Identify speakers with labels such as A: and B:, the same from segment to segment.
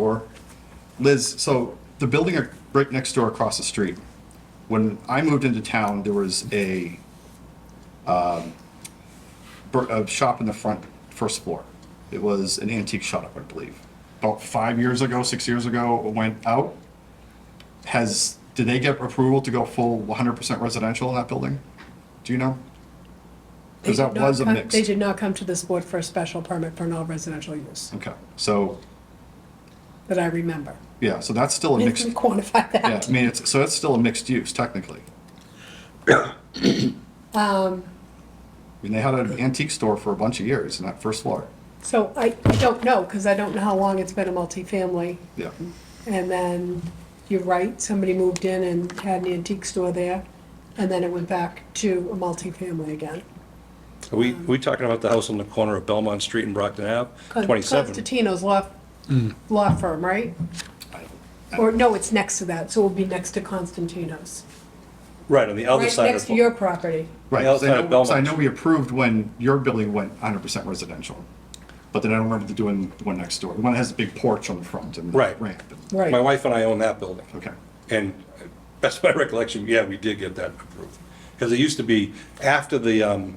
A: door. Liz, so the building ac- right next door across the street, when I moved into town, there was a, um, bur- a shop in the front, first floor. It was an antique shop, I believe. About five years ago, six years ago, it went out. Has, did they get approval to go full 100% residential in that building? Do you know? Because
B: They
A: that
B: did not
A: was a
B: come-
A: mix.
B: They did not come to this board for a special permit for non-residential use,
A: Okay, so,
B: that I remember.
A: yeah, so that's still a
B: We
A: mixed.
B: can quantify
A: Yeah, I
B: that.
A: mean, it's, so it's still a mixed use technically.
B: Um,
A: I mean, they had an antique store for a bunch of years in that first floor.
B: So I, I don't know, because I don't know how long it's been a multifamily.
A: Yeah.
B: And then, you're right, somebody moved in and had an antique store there, and then it went back to a multifamily again.
C: Are we, are we talking about the house on the corner of Belmont Street and Brockton Ave? 27?
B: Constantino's law, law firm, right? Or, no, it's next to that, so it'll be next to Constantino's.
C: Right, on the other
B: Right
C: side
B: next
C: of,
B: to your property.
A: Right,
C: The
A: 'cause
C: outside
A: I
C: of
A: know, 'cause I
C: Belmont.
A: know we approved when your building went hundred percent residential. But then I don't remember doing the one next door, the one that has a big porch on the front and
C: Right.
A: ramp. and-
B: Right.
C: my wife and I own that building.
A: Okay,
C: And that's my recollection, yeah, we did get that approved. Because it used to be after the, um,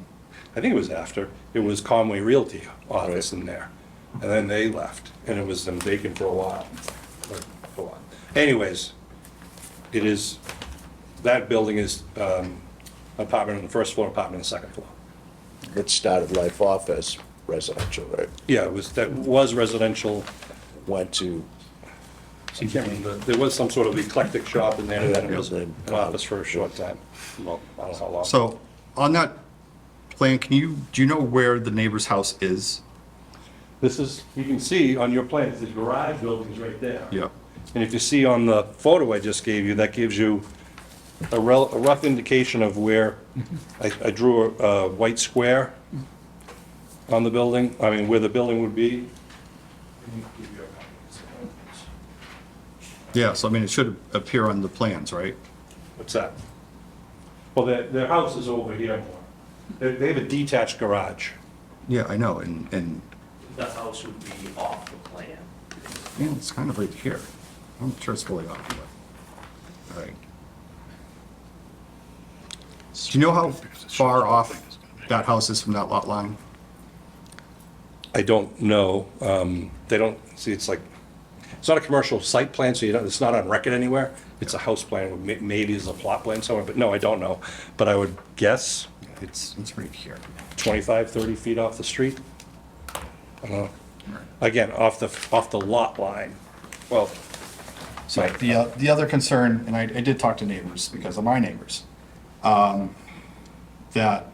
C: I think it was after, it was Conway Realty office in there. And then they left, and it was um, vacant for a while. like, a while. Anyways, it is, that building is um, apartment on the first floor, apartment on the second floor.
D: It started life off as residential, right?
C: Yeah, it was, that was residential.
D: Went to,
C: I can't remember. There was some sort of eclectic shop in there, and then it was
D: Yeah.
C: an office for a short time. Well, I don't know how long.
A: so on that plan, can you, do you know where the neighbor's house is?
C: This is, you can see on your plans, the garage building's right there.
A: Yeah.
C: And if you see on the photo I just gave you, that gives you a rel, a rough indication of where, I, I drew a, a white square on the building, I mean, where the building would be.
A: Yeah, so I mean, it should appear on the plans, right?
C: What's that? Well, their, their house is over here more. They, they have a detached garage.
A: Yeah, I know, and, and,
E: the house would be off the plan.
A: yeah, it's kind of right here. I'm sure it's fully occupied. All right. Do you know how far off that house is from that lot line?
C: I don't know. Um, They don't, see, it's like, it's not a commercial site plan, so you don't, it's not on record anywhere. It's a house plan, may- maybe it's a plot plan somewhere, but no, I don't know. But I would guess
A: It's, it's right here.
C: 25, 30 feet off the street. I don't know. Again, off the, off the lot line. Well,
A: So the, uh, the other concern, and I, I did talk to neighbors because of my neighbors, um, that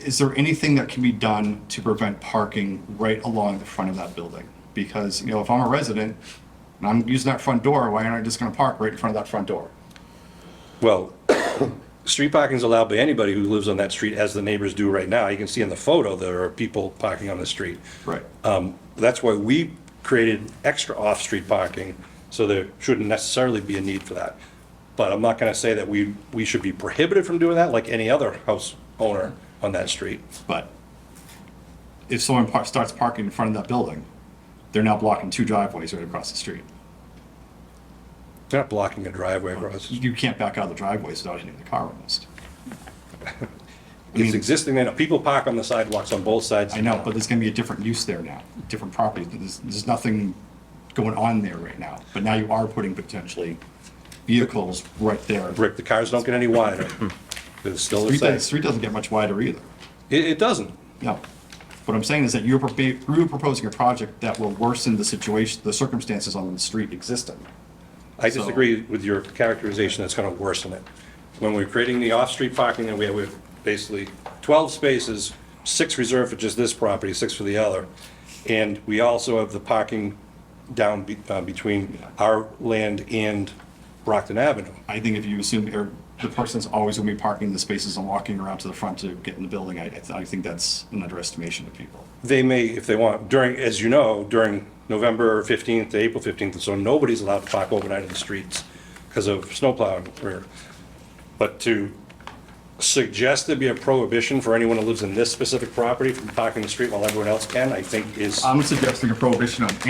A: is there anything that can be done to prevent parking right along the front of that building? Because, you know, if I'm a resident and I'm using that front door, why aren't I just gonna park right in front of that front door?
C: Well, street parking is allowed by anybody who lives on that street, as the neighbors do right now. You can see in the photo, there are people parking on the street.
A: Right.
C: Um, That's why we created extra off-street parking, so there shouldn't necessarily be a need for that. But I'm not going to say that we, we should be prohibited from doing that, like any other house owner on that street.
A: But if someone par- starts parking in front of that building, they're now blocking two driveways right across the street.
C: They're not blocking a driveway across.
A: You can't back out of the driveways without hitting the car almost.
C: It's existing, there now. people park on the sidewalks on both sides.
A: I know, but there's gonna be a different use there now, different property. There's, there's nothing going on there right now, but now you are putting potentially vehicles right there.
C: Rick, the cars don't get any wider. They're still the
A: Street,
C: same.
A: doesn't- street doesn't get much wider either,
C: It, it doesn't.
A: no. What I'm saying is that you're, propa- you're proposing a project that will worsen the situation, the circumstances on the street existing.
C: I
A: So-
C: disagree with your characterization, that's gonna worsen it. When we're creating the off-street parking, then we have, we have basically twelve spaces, six reserved for just this property, six for the other. And we also have the parking down be, uh, between our land and Brockton Avenue.
A: I think if you assume, or the person's always gonna be parking in the spaces and walking around to the front to get in the building, I, I think that's an underestimation of people.
C: They may, if they want, during, as you know, during November fifteenth to April fifteenth, so nobody's allowed to park overnight in the streets because of snowplowing. or- But to suggest there be a prohibition for anyone who lives in this specific property from parking in the street while everyone else can, I think is.
A: I'm suggesting a prohibition on